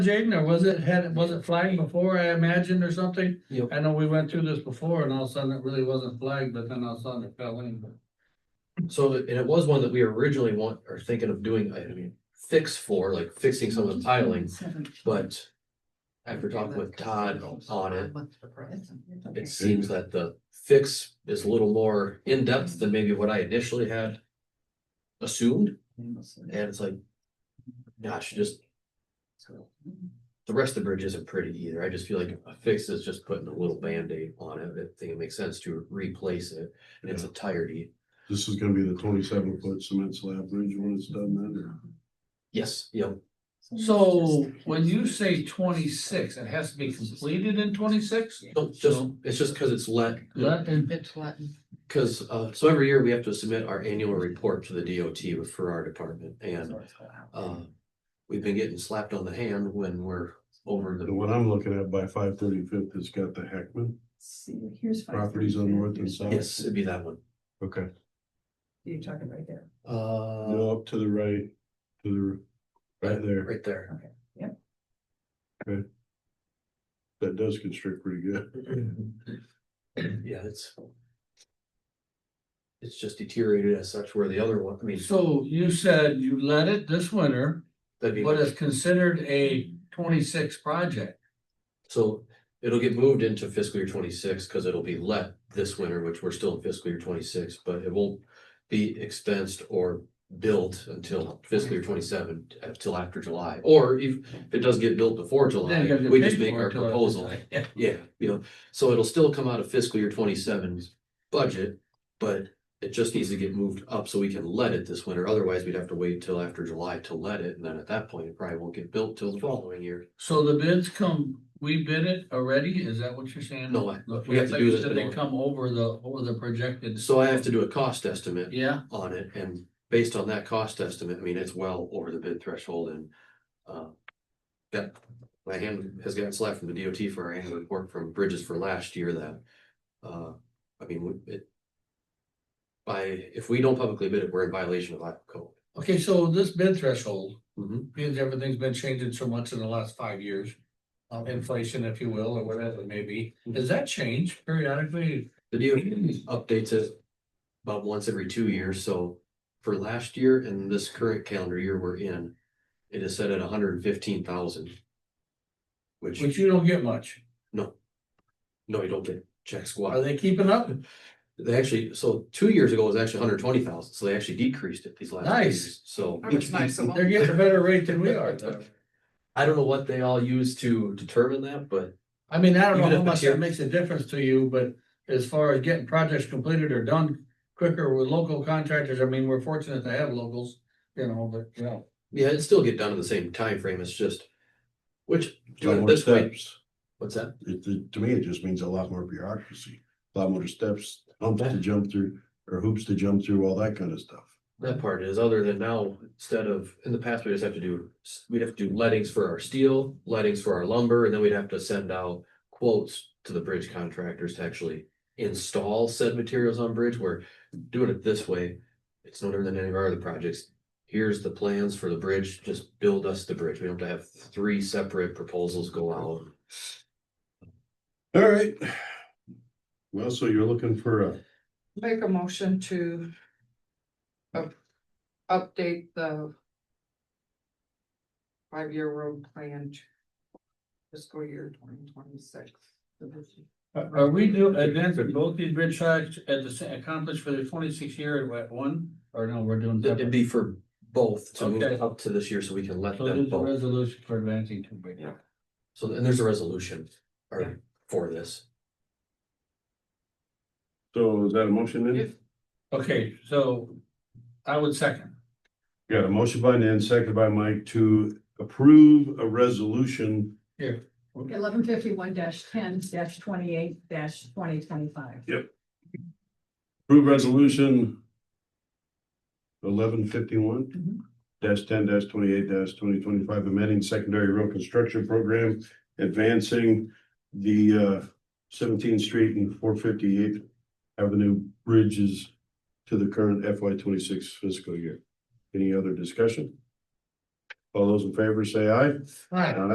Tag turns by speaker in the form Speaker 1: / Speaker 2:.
Speaker 1: Jaden, or was it, had, was it flagged before, I imagine, or something?
Speaker 2: Yep.
Speaker 1: I know we went through this before and all of a sudden it really wasn't flagged, but then all of a sudden it fell in.
Speaker 2: So, and it was one that we originally want, are thinking of doing, I mean, fix for, like fixing some of the tiling, but. After talking with Todd on it, it seems that the fix is a little more in-depth than maybe what I initially had. Assumed, and it's like, gosh, just the rest of the bridge isn't pretty either. I just feel like a fix is just putting a little Band-Aid on it. I think it makes sense to replace it in its entirety.
Speaker 3: This is gonna be the twenty-seven foot cement slab bridge when it's done then, or?
Speaker 2: Yes, you know,
Speaker 1: So when you say twenty-six, it has to be completed in twenty-six?
Speaker 2: don't just, it's just because it's let,
Speaker 1: Let, and
Speaker 4: It's Latin.
Speaker 2: Because, uh, so every year we have to submit our annual report to the DOT with- for our department and, uh, we've been getting slapped on the hand when we're over
Speaker 3: The
Speaker 2: the,
Speaker 3: one I'm looking at by five thirty-fifth, it's got the Heckman
Speaker 5: See, here's. five
Speaker 3: properties on
Speaker 5: thirty.
Speaker 3: north and south.
Speaker 2: yes, it'd be that one.
Speaker 3: Okay,
Speaker 5: You're talking right there.
Speaker 2: Uh,
Speaker 3: no, up to the right, to the, right there,
Speaker 2: right there.
Speaker 3: that does constrict pretty good.
Speaker 2: Yeah, it's. It's just deteriorated as such where the other one, I mean,
Speaker 1: so you said you let it this winter,
Speaker 2: that'd be.
Speaker 1: what is considered a twenty-six project?
Speaker 2: So it'll get moved into fiscal year twenty-six, cause it'll be let this winter, which we're still in fiscal year twenty-six, but it won't be expensed or billed until fiscal year twenty-seven, until after July, or if if it does get built before July,
Speaker 1: Then you gotta
Speaker 2: we
Speaker 1: pay
Speaker 2: just make
Speaker 1: for it
Speaker 2: our
Speaker 1: till-
Speaker 2: proposal. Yeah, you know, so it'll still come out of fiscal year 27's budget, but it just needs to get moved up so we can let it this winter. Otherwise, we'd have to wait till after July to let it, and then at that point, it probably won't get built till the following year.
Speaker 1: So the bids come, we bid it already, is that what you're saying?
Speaker 2: No, I-
Speaker 1: Look,
Speaker 2: we have
Speaker 1: it's
Speaker 2: to
Speaker 1: like
Speaker 2: do
Speaker 1: you
Speaker 2: this
Speaker 1: said, they
Speaker 2: bid.
Speaker 1: come over the, over the projected,
Speaker 2: So I have to do a cost estimate
Speaker 1: yeah?
Speaker 2: on it, and based on that cost estimate, I mean, it's well over the bid threshold and. uh, Yeah, my hand has gotten slapped from the DOT for our annual report from Bridges for last year that, uh, I mean, we- it. By, if we don't publicly bid it, we're in violation of Iowa code.
Speaker 1: Okay, so this bid threshold,
Speaker 2: Mhm.
Speaker 1: because everything's been changing so much in the last five years. uh, inflation, if you will, or whatever it may be, does that change periodically?
Speaker 2: The DOT updates it about once every two years, so for last year and this current calendar year we're in, it is set at hundred and fifteen thousand. Which,
Speaker 1: Which you don't get much.
Speaker 2: no, you don't get check squat.
Speaker 1: Are they keeping up?
Speaker 2: They actually, so two years ago it was actually hundred twenty thousand, so they actually decreased it these last. two
Speaker 1: Nice.
Speaker 2: years. So
Speaker 1: They're getting a better rate than we are. though.
Speaker 2: I don't know what they all use to determine that, but
Speaker 1: I mean, I don't know
Speaker 2: Even
Speaker 1: how
Speaker 2: if
Speaker 1: much
Speaker 2: it's here-
Speaker 1: that makes a difference to you, but as far as getting projects completed or done quicker with local contractors, I mean, we're fortunate to have locals, you know, but, you know.
Speaker 2: yeah, it still get done in the same time frame. it's just. Which,
Speaker 3: Lot more
Speaker 2: this way,
Speaker 3: steps.
Speaker 2: what's that?
Speaker 3: It, it- to me, it just means a lot more bureaucracy, a lot more steps, humps to jump through, or hoops to jump through, all that kind of stuff.
Speaker 2: That part is, other than now, instead of, in the past, we just have to do, we'd have to do lettings for our steel, lettings for our lumber, and then we'd have to send out quotes to the bridge contractors to actually install said materials on bridge, We're doing it this way, it's no different than any of our other projects. Here's the plans for the bridge, just build us the bridge. We don't have to have three separate proposals go out.
Speaker 3: All right. Well, so you're looking for a,
Speaker 4: Make a motion to up, update the five-year road plan to fiscal year twenty twenty-six.
Speaker 1: Are are Uh, we do, advance both these bridge sites at the, sa- accomplished for the twenty-six year at one, or no, we're doing.
Speaker 2: It'd
Speaker 1: separate?
Speaker 2: be for both to move
Speaker 1: Okay.
Speaker 2: up to this year so we can let
Speaker 1: So there's
Speaker 2: them
Speaker 1: a
Speaker 2: both.
Speaker 1: resolution for advancing two bridges.
Speaker 4: Yeah.
Speaker 2: So, and there's a resolution or for this.
Speaker 3: so is that a motion then?
Speaker 1: Okay, so I would second.
Speaker 3: Got a motion by Nan, second by Mike to approve a resolution.
Speaker 5: Eleven fifty-one ten twenty-eight twenty twenty-five.
Speaker 3: Approve resolution. Eleven fifty-one
Speaker 5: Mhm.
Speaker 3: dash ten dash twenty-eight dash twenty twenty-five, amending secondary road construction program, advancing the uh seventeenth street and four fifty-eighth avenue bridges to the current FY twenty-six fiscal year. Any other discussion? All those in favor say aye.
Speaker 1: Right.